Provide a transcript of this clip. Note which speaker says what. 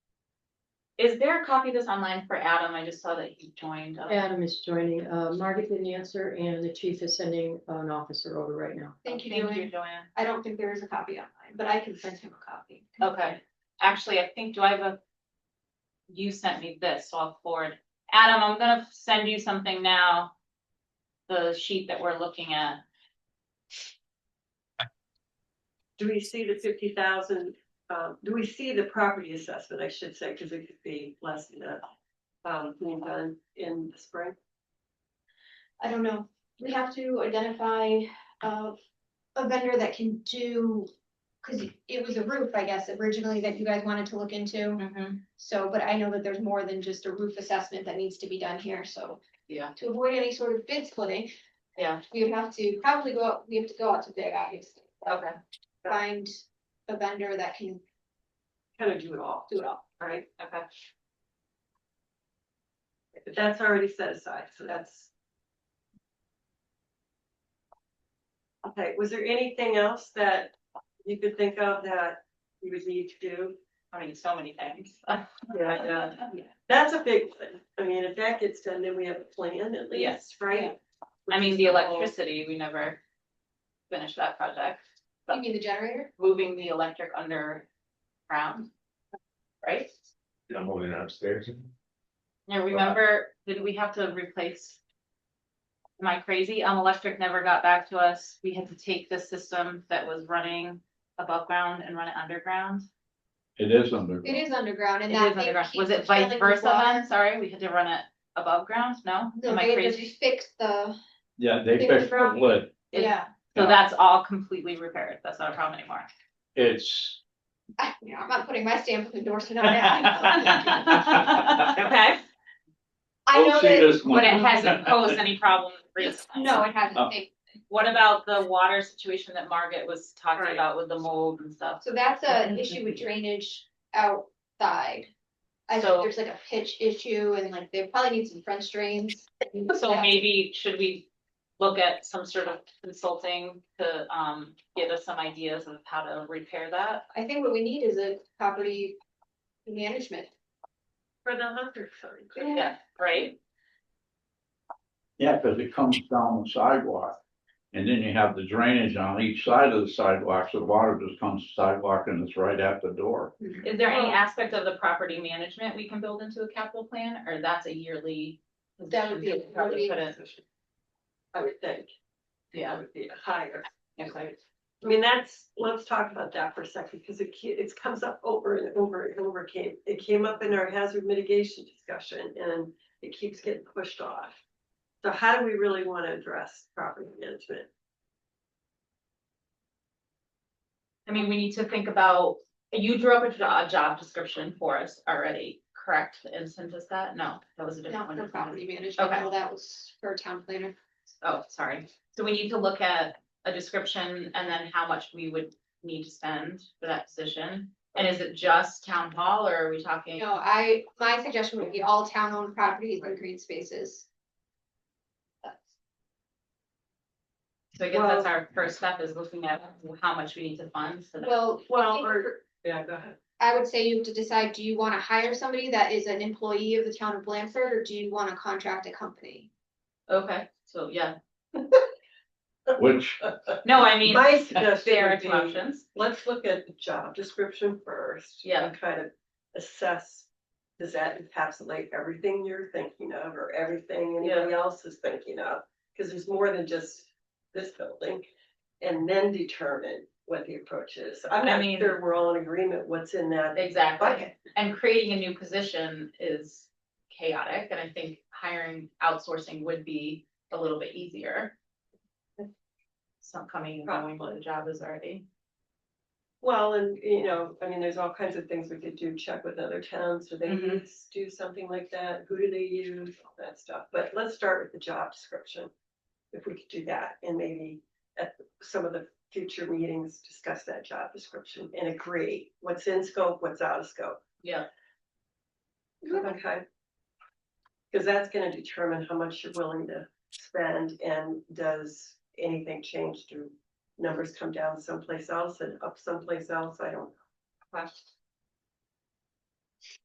Speaker 1: Is there a copy of this online for Adam? I just saw that he joined. up.
Speaker 2: Adam is joining. Uh, Margaret didn't answer and the chief is sending an officer over right now.
Speaker 3: Thank you,
Speaker 1: Thank you,
Speaker 3: Joanne.
Speaker 1: Joanne.
Speaker 3: I don't think there is a copy online, but I can send him a copy.
Speaker 1: Okay, actually, I think, do I have a? You sent me this, so I'll forward. Adam, I'm gonna send you something now. The sheet that we're looking at.
Speaker 4: Do we see the fifty thousand, um, do we see the property assessment, I should say, because it could be less than that. Um, being done in the spring,
Speaker 3: I don't know, we have to identify uh a vendor that can do, cause it was a roof, I guess, originally that you guys wanted to look into.
Speaker 1: Mm-hmm.
Speaker 4: Mm-hmm.
Speaker 3: So, but I know that there's more than just a roof assessment that needs to be done here, so.
Speaker 1: Yeah.
Speaker 3: To avoid any sort of bid splitting.
Speaker 1: Yeah.
Speaker 3: We would have to probably go out, we have to go out to bid, obviously.
Speaker 1: Okay,
Speaker 3: Find a vendor that can
Speaker 4: kind of do it all,
Speaker 3: do it all.
Speaker 4: right?
Speaker 1: okay.
Speaker 4: But that's already set aside, so that's. Okay, was there anything else that you could think of that you would need to do?
Speaker 1: I mean, so many things.
Speaker 4: Yeah. That's a big one, I mean, if that gets done, then we have a plan at least,
Speaker 1: Yes.
Speaker 4: right?
Speaker 1: I mean, the
Speaker 4: Which is whole-
Speaker 1: electricity, we never finished that project.
Speaker 3: You mean the generator?
Speaker 1: Moving the electric underground, right?
Speaker 5: I'm moving upstairs.
Speaker 1: Now, remember, did we have to replace? Am I crazy? Um, electric never got back to us. We had to take the system that was running above ground and run it underground.
Speaker 5: It is under.
Speaker 3: It is underground
Speaker 1: It
Speaker 3: and
Speaker 1: is
Speaker 3: that. thing
Speaker 1: underground. Was
Speaker 3: keeps
Speaker 1: it vice
Speaker 3: filling with
Speaker 1: versa
Speaker 3: water.
Speaker 1: then? Sorry, we had to run it above ground? No?
Speaker 3: No,
Speaker 1: Am
Speaker 3: they
Speaker 1: I
Speaker 3: had to
Speaker 1: crazy?
Speaker 3: fix the,
Speaker 5: Yeah, they
Speaker 3: It
Speaker 5: fixed
Speaker 3: was
Speaker 5: the
Speaker 3: wrong.
Speaker 5: lid.
Speaker 1: It-
Speaker 3: yeah,
Speaker 1: So that's all completely repaired. That's not a problem anymore.
Speaker 5: It's,
Speaker 3: I, you know, I'm not putting my stamp of endorsement on that.
Speaker 1: Okay,
Speaker 3: I know
Speaker 6: Oh,
Speaker 5: don't see
Speaker 3: that,
Speaker 5: this
Speaker 1: but
Speaker 5: one.
Speaker 1: it hasn't posed any problem recently.
Speaker 3: no, it
Speaker 5: Oh.
Speaker 3: hasn't, They-
Speaker 1: What about the water situation that Margaret was talking
Speaker 4: Right.
Speaker 1: about with the mold and stuff?
Speaker 3: so that's an issue with drainage outside. I
Speaker 1: So-
Speaker 3: think there's like a pitch issue and like they probably need some French drains.
Speaker 1: So maybe should we look at some sort of consulting to um get us some ideas of how to repair that?
Speaker 3: I think what we need is a property management.
Speaker 4: For the hunter fund.
Speaker 1: Yeah, right?
Speaker 6: Yeah, because it comes down the sidewalk. And then you have the drainage on each side of the sidewalk, so the water just comes sidewalk and it's right at the door.
Speaker 1: Is there any aspect of the property management we can build into a capital plan or that's a yearly?
Speaker 3: That would be a
Speaker 1: position? Probably
Speaker 3: yearly-
Speaker 1: couldn't-
Speaker 4: I would think, that
Speaker 1: Yeah.
Speaker 4: would be higher.
Speaker 1: okay.
Speaker 4: I mean, that's, let's talk about that for a second, because it, ke- it comes up over and over and over came, it came up in our hazard mitigation discussion and it keeps getting pushed off. So how do we really want to address property management?
Speaker 1: I mean, we need to think about, you drew up a job, job description for us already, correct? And sent us that? No, that was a different
Speaker 3: Not
Speaker 1: one.
Speaker 3: for property management,
Speaker 1: Okay.
Speaker 3: well, that was for town planner.
Speaker 1: Oh, sorry. So we need to look at a description and then how much we would need to spend for that position? And is it just town hall or are we
Speaker 3: You
Speaker 1: talking?
Speaker 3: know, I, my suggestion would be all town owned properties and green spaces. That's-
Speaker 1: So I guess that's our first step is looking at how much we need to fund. so that-
Speaker 3: Well,
Speaker 4: Well, or, yeah, go ahead.
Speaker 3: I would say you have to decide, do you wanna hire somebody that is an employee of the town of Blanford, or do you wanna contract a company?
Speaker 1: Okay, so yeah.
Speaker 6: Which,
Speaker 1: No, I mean,
Speaker 4: My
Speaker 1: there are
Speaker 4: suggestion
Speaker 1: two
Speaker 4: would be,
Speaker 1: options.
Speaker 4: let's look at the job description first.
Speaker 1: Yeah.
Speaker 4: And kind of assess, does that encapsulate everything you're thinking of or everything anybody else is thinking of? Because there's more than just this building. And then determine what the approach is. I'm
Speaker 1: I
Speaker 4: not
Speaker 1: mean-
Speaker 4: sure we're all in agreement what's in that
Speaker 1: Exactly.
Speaker 4: bucket.
Speaker 1: And creating a new position is chaotic and I think hiring outsourcing would be a little bit easier. Some coming and going, what the job is already.
Speaker 4: Well, and you know, I mean, there's all kinds of things we could do, check with other towns, do they
Speaker 1: Mhm.
Speaker 4: use, do something like that, who do they use, all that stuff, but let's start with the job description. If we could do that, and maybe at some of the future meetings, discuss that job description and agree what's in scope, what's out of scope.
Speaker 1: Yeah.
Speaker 3: Yeah.
Speaker 4: Okay. Cause that's gonna determine how much you're willing to spend and does anything change? Do numbers come down someplace else and up someplace else? I don't. know.